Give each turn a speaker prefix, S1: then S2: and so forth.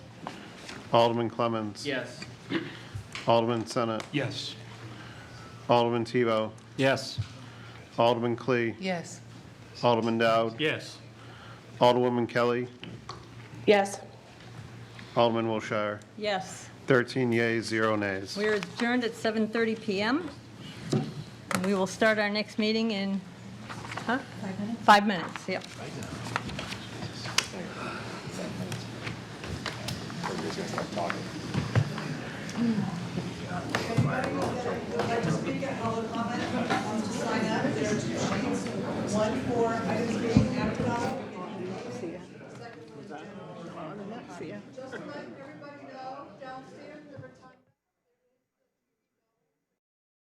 S1: Alderman Clemmons.
S2: Yes.
S1: Alderman Senate.
S3: Yes.
S1: Alderman Tebow.
S3: Yes.
S1: Alderman Clee.
S4: Yes.
S1: Alderman Dowd.
S3: Yes.
S1: Alderwoman Kelly.
S5: Yes.
S1: Alderman Wilshire.
S6: Yes.
S1: 13 yeas, zero nays.
S6: We are adjourned at 7:30 PM. And we will start our next meeting in, huh? Five minutes? Five minutes, yep.
S5: See ya. See ya.